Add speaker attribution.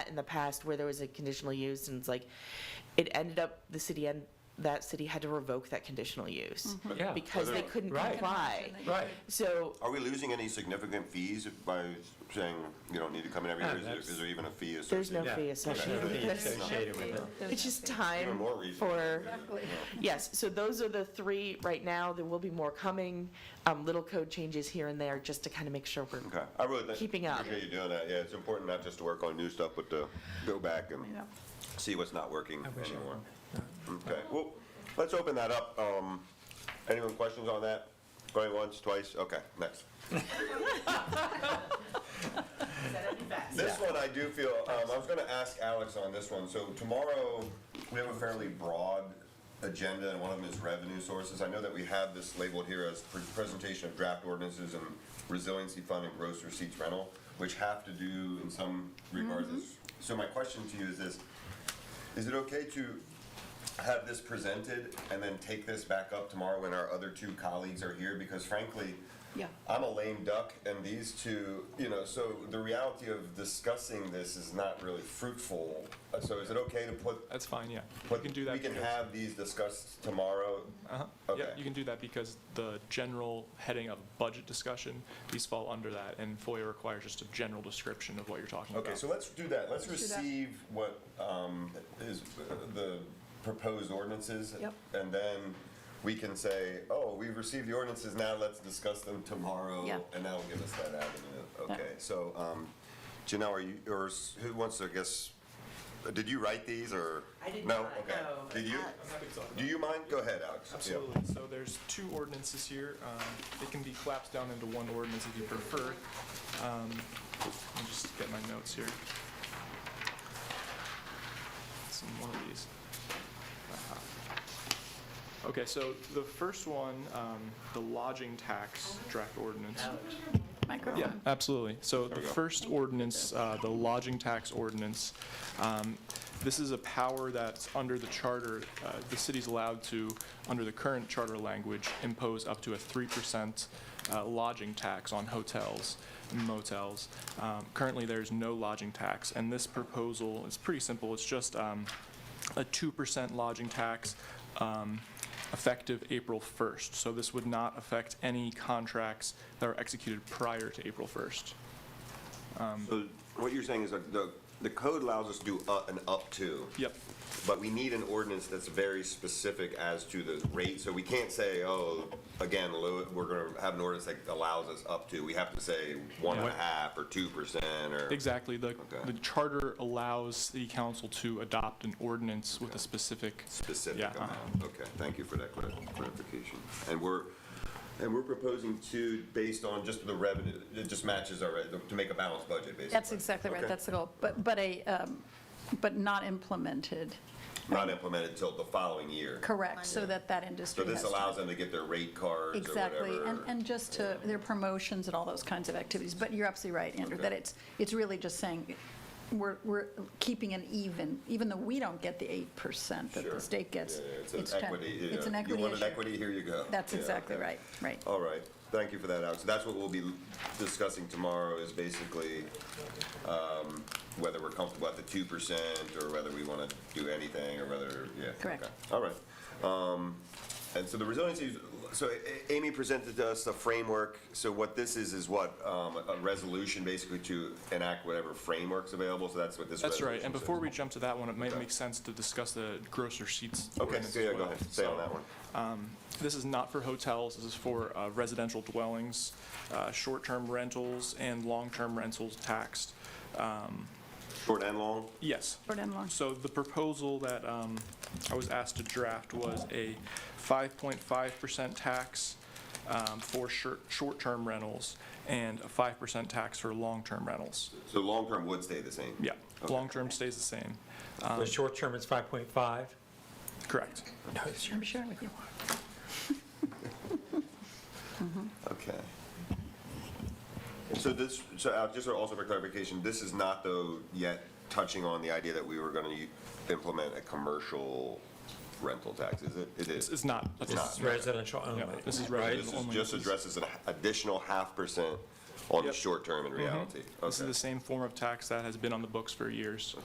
Speaker 1: in the past where there was a conditional use and it's like, it ended up, the city and, that city had to revoke that conditional use.
Speaker 2: Yeah.
Speaker 1: Because they
Speaker 3: Whether-
Speaker 1: couldn't
Speaker 2: Right.
Speaker 1: comply.
Speaker 2: Right.
Speaker 1: So,
Speaker 3: Are we losing any significant fees if- by saying you don't need to come in every
Speaker 2: No,
Speaker 3: year? Is there-
Speaker 2: that's-
Speaker 3: Is there even a fee
Speaker 1: Oh, there's no
Speaker 3: associated?
Speaker 1: fee associated with this.
Speaker 2: associated with it.
Speaker 1: It's just
Speaker 3: Even
Speaker 1: time
Speaker 3: more reason.
Speaker 1: for,
Speaker 4: Exactly.
Speaker 1: yes, so those are the three right now. There will be more coming, um, little code changes here and there, just to kind of make sure we're
Speaker 3: Okay, I really think.
Speaker 1: Keeping up.
Speaker 3: Appreciate you doing that, yeah, it's important not just to work on new stuff, but to go back and
Speaker 4: Yeah.
Speaker 3: see what's not working
Speaker 2: wish I
Speaker 3: anymore. Okay, well, let's open that up. Um, Anyone questions on that? Going once, twice, okay, next. This one I do feel, um, I was gonna ask Alex on this one, so tomorrow, we have a fairly broad agenda, and one of them is revenue sources. I know that we have this labeled here as pre- presentation of draft ordinances and resiliency fund and gross receipts rental, which have to do in some regards. is- So my question to you is this, is it okay to have this presented and then take this back up tomorrow when our other two colleagues are here? Because frankly,
Speaker 4: Yeah.
Speaker 3: I'm a lame duck, and these two, you know, so the reality of discussing this is not really fruitful. Uh, So is it okay to put,
Speaker 5: That's fine, yeah. You
Speaker 3: put,
Speaker 5: can do that.
Speaker 3: we can
Speaker 5: because-
Speaker 3: have these discussed tomorrow?
Speaker 5: Uh-huh. Yeah,
Speaker 3: okay.
Speaker 5: you can do that because the general heading of budget discussion, these fall under that, and FOIA requires just a general description of what you're talking about.
Speaker 3: Okay, so let's do that. Let's
Speaker 4: Let's do that.
Speaker 3: receive what um, is uh, the proposed ordinances.
Speaker 4: Yep.
Speaker 3: And then we can say, oh, we've received the ordinances, now let's discuss them tomorrow.
Speaker 4: Yeah.
Speaker 3: And that'll give us that avenue. Okay, so um, Janelle, are you, or s- who wants to, I guess, did you write these or?
Speaker 1: I did
Speaker 3: No,
Speaker 1: not,
Speaker 3: okay.
Speaker 1: no.
Speaker 3: Did you?
Speaker 1: Alex.
Speaker 5: happy to talk about
Speaker 3: Do you mind? Go ahead, Alex. Yeah.
Speaker 5: Absolutely. So there's two ordinances here. Um, They can be collapsed down into one ordinance if you prefer. Um, Let me just get my notes here. Some one of these. Uh-huh. Okay, so the first one, um, the lodging tax draft ordinance. Yeah,
Speaker 4: Microphone.
Speaker 5: absolutely. So the
Speaker 3: we go.
Speaker 5: first ordinance, uh, the lodging tax ordinance, um, this is a power that's under the charter, uh, the city's allowed to, under the current charter language, impose up to a 3% uh, lodging tax on hotels, motels. Um, Currently, there's no lodging tax, and this proposal is pretty simple. It's just um, a 2% lodging tax um, effective April 1st. So this would not affect any contracts that are executed prior to April 1st.
Speaker 3: So what you're saying is that the, the code allows us to do uh, an up to.
Speaker 5: Yep,
Speaker 3: But we need an ordinance that's very specific as to the rate, so we can't say, oh, again, low, we're gonna have an ordinance that allows us up to, we have to say one and a
Speaker 5: Yeah.
Speaker 3: half or two percent or.
Speaker 5: exactly. The,
Speaker 3: Okay.
Speaker 5: the charter allows the council to adopt an ordinance with a specific.
Speaker 3: Specific
Speaker 5: Yeah,
Speaker 3: amount,
Speaker 5: uh-huh.
Speaker 3: okay, thank you for that clar- clarification. And we're, and we're proposing to, based on just the revenue, it just matches our, re- to make a balanced budget, basically.
Speaker 4: That's exactly right,
Speaker 3: Okay.
Speaker 4: that's the goal. But, but a, um, but not implemented,
Speaker 3: Not implemented until the following year.
Speaker 4: correct, so that that
Speaker 3: So
Speaker 4: industry has.
Speaker 3: this
Speaker 4: time.
Speaker 3: allows them to get their rate cards or whatever.
Speaker 4: Exactly, and, and just to, their promotions and all those kinds of activities. But you're absolutely right, Andrew,
Speaker 3: Okay.
Speaker 4: that it's, it's really just saying, we're, we're keeping an even, even though we don't get the 8% that
Speaker 3: Sure.
Speaker 4: the state gets.
Speaker 3: Yeah, yeah, It's an
Speaker 4: ten-
Speaker 3: equity. yeah.
Speaker 4: It's an equity
Speaker 3: You want an
Speaker 4: issue.
Speaker 3: equity, here you go.
Speaker 4: That's
Speaker 3: Yeah,
Speaker 4: exactly
Speaker 3: okay. Oh.
Speaker 4: right, right.
Speaker 3: All right, thank you for that, Alex. That's what we'll be discussing tomorrow is basically um, whether we're comfortable at the two percent or whether we want to do anything or whether, yeah.
Speaker 4: Correct.
Speaker 3: okay. All right. Um, And so the resiliency, is- so A- Amy presented to us a framework. So what this is, is what, um, a resolution basically to enact whatever framework's available. So that's what this
Speaker 5: That's right.
Speaker 3: resolution
Speaker 5: And before
Speaker 3: says.
Speaker 5: we jump to that one, it might
Speaker 3: Okay.
Speaker 5: make sense to discuss the gross receipts.
Speaker 3: Okay,
Speaker 5: ordinance
Speaker 3: so
Speaker 5: as
Speaker 3: yeah, go
Speaker 5: well.
Speaker 3: ahead, stay on
Speaker 5: So,
Speaker 3: that one.
Speaker 5: This is not for hotels, this is for uh, residential dwellings, uh, short-term rentals, and long-term rentals taxed.
Speaker 3: Short and long?
Speaker 5: Yes.
Speaker 4: Short and long.
Speaker 5: So the proposal that um, I was asked to draft was a 5.5% tax um, for shir- short-term rentals and a 5% tax for long-term rentals.
Speaker 3: So long-term would stay the same?
Speaker 5: Yeah,
Speaker 3: Okay.
Speaker 5: long-term stays the same.
Speaker 2: The short term is 5.5.
Speaker 5: Correct.
Speaker 2: No, it's
Speaker 4: I'm sharing with you.
Speaker 3: Okay. So this, so Al, just also for clarification, this is not though yet touching on the idea that we were gonna u- implement a commercial rental tax, is it? It
Speaker 5: This
Speaker 3: is.
Speaker 5: is not,
Speaker 3: It's not.
Speaker 2: residential only.
Speaker 5: Yeah, this is
Speaker 3: So
Speaker 5: residential
Speaker 3: This is
Speaker 5: only.
Speaker 3: just
Speaker 5: This is-
Speaker 3: addresses an additional half percent on the
Speaker 5: Yep.
Speaker 3: short term in reality.
Speaker 5: This is
Speaker 3: Okay. Mm-hmm.
Speaker 5: the same form of tax that has been on the books for years.